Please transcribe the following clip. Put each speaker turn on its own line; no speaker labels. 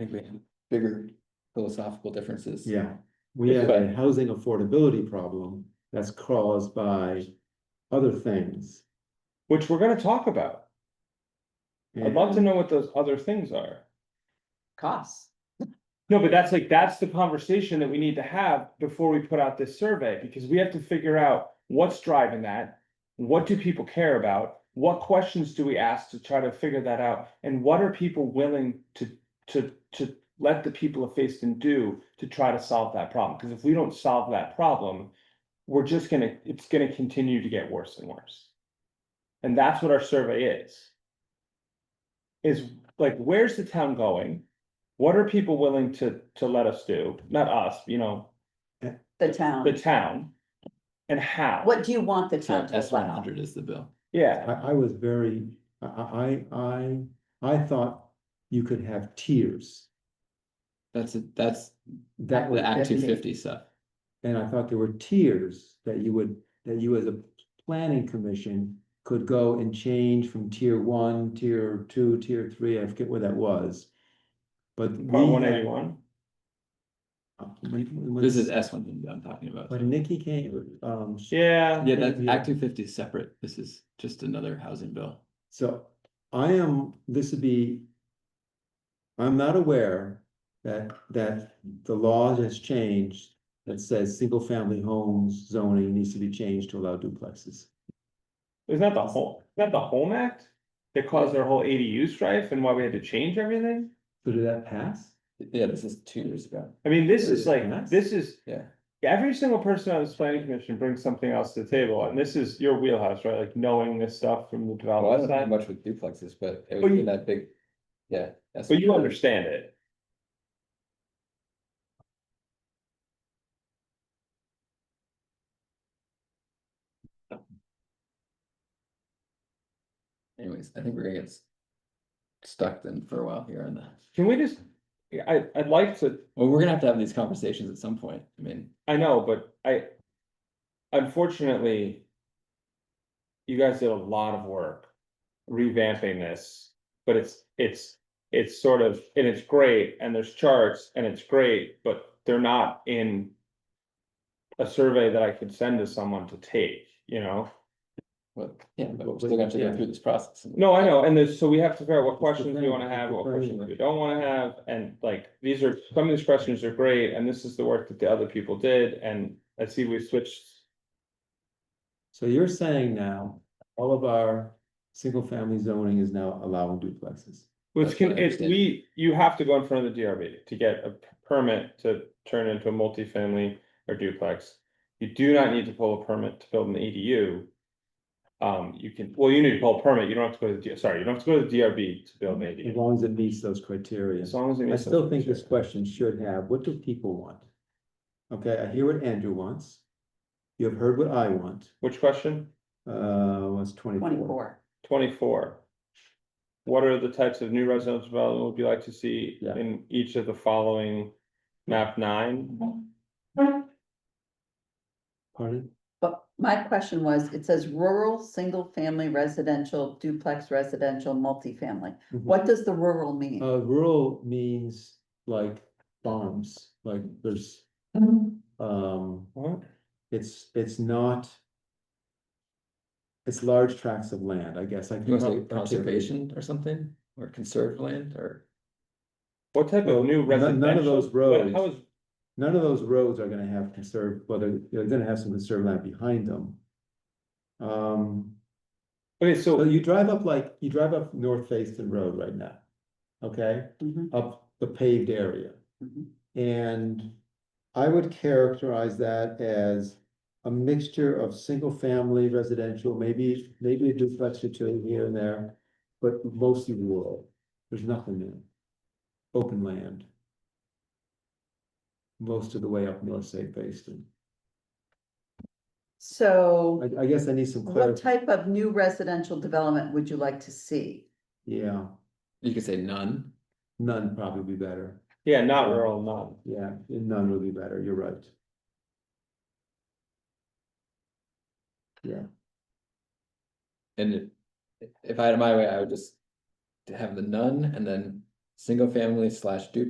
think we have bigger philosophical differences.
Yeah, we have a
But-
housing affordability problem that's caused by other things.
which we're gonna talk about. I'd love to
and-
know what those other things are.
costs.
No, but that's like, that's the conversation that we need to have before we put out this survey, because we have to figure out what's driving that. What do people care about? What questions do we ask to try to figure that out? And what are people willing to, to, to let the people of Facein do to try to solve that problem? Because if we don't solve that problem, we're just gonna, it's gonna continue to get worse and worse. And that's what our survey is. Is like, where's the town going? What are people willing to, to let us do? Not us, you know,
The
the
town,
town. And how?
Um, what do you want the town to
S one
allow?
hundred is the bill.
Yeah,
I, I was very, I, I, I, I thought you could have tiers.
That's, a- that's
That
the
would
Act
that-
two fifty stuff.
And I thought there were tiers that you would, that you as a planning commission could go and change from tier one, tier two, tier three, I forget where that was. But
part
we.
one
had-
eighty-one.
when- when-
This is S one hundred I'm talking about.
When Nikki came, um,
Yeah,
Yeah, that
Yeah.
Act two fifty is separate. This is just another housing bill.
So I am, this would be. I'm not aware that, that the law has changed that says single family homes zoning needs to be changed to allow duplexes.
isn't that the whole, isn't that the home act? That caused our whole ADU strife and why we had to change everything?
So did that pass?
Yeah, this is two years ago.
I mean, this is
Yes.
like, this is,
Yeah.
every single person on this planning commission brings something else to the table, and this is your wheelhouse, right? Like knowing this stuff from the
Well, I
development
don't know
side,
much with duplexes, but it
Oh, But
was
you-
in that big, yeah. that's-
but you understand it.
Anyways, I think we're gonna get s- stuck then for a while here on that.
Can we just, I, I'd like to,
Well, we're gonna have to have these conversations at some point. I mean,
I know, but I, unfortunately, you guys did a lot of work revamping this, but it's, it's, it's sort of, and it's great, and there's charts, and it's great, but they're not in a survey that I could send to someone to take, you know?
what, yeah, but
Well,
we're still gonna have to
yeah.
go through this process.
No, I know, and there's, so we have to figure out what
It's the
questions we
thing,
wanna
it's
have,
the
what
thing,
questions we
like-
don't wanna have, and like, these are, some of these questions are great, and this is the work that the other people did, and I see we switched.
So you're saying now, all of our single family zoning is now allowing duplexes.
Which
That's
can,
what I
it's,
understand.
we, you have to go in front of the DRB to get a p- permit to turn into a multifamily or duplex. You do not need to pull a permit to build an ADU. Um, you can, well, you need to pull a permit, you don't have to go to the, D- sorry, you don't have to go to the DRB to build an
As
ADU.
long as it meets those criteria.
As long as. it
I
meets those
still think this
criteria.
question should have, what do people want? Okay, I hear what Andrew wants. You have heard what I want,
Which question?
uh, was twenty-four.
Twenty-four,
Twenty-four. What are the types of new residential development would you like to see
Yeah.
in each of the following map
Mm-hmm.
nine?
Pardon?
but my question was, it says rural, single-family residential, duplex residential, multifamily.
Mhm.
What does the rural mean?
Uh, rural means like farms, like there's, um,
What?
it's, it's not. It's large tracts of land, I guess. I
You
can
want to say
probably articulate.
conservation or something, or conserved land, or?
What type
Well,
of new
none- none
residential?
of those
what- how
roads.
is-
None of those roads are gonna have conserved, well, they're, they're gonna have some conserved land behind them. Um,
Okay,
so
so,
you drive up like, you drive up North Facein Road right now. Okay,
Mhm,
up the paved area.
mhm.
And I would characterize that as a mixture of single-family residential, maybe, maybe a duplex or two here and there, but mostly rural. There's nothing there. Open land. Most of the way up North St. Basin.
So
I, I guess I need some
what
clarity.
type of new residential development would you like to see?
Yeah,
You could say none.
none probably be better.
yeah, not rural, none.
Yeah, none would be better. You're right.
And if, if I had it my way, I would just have the none and then single family slash duplex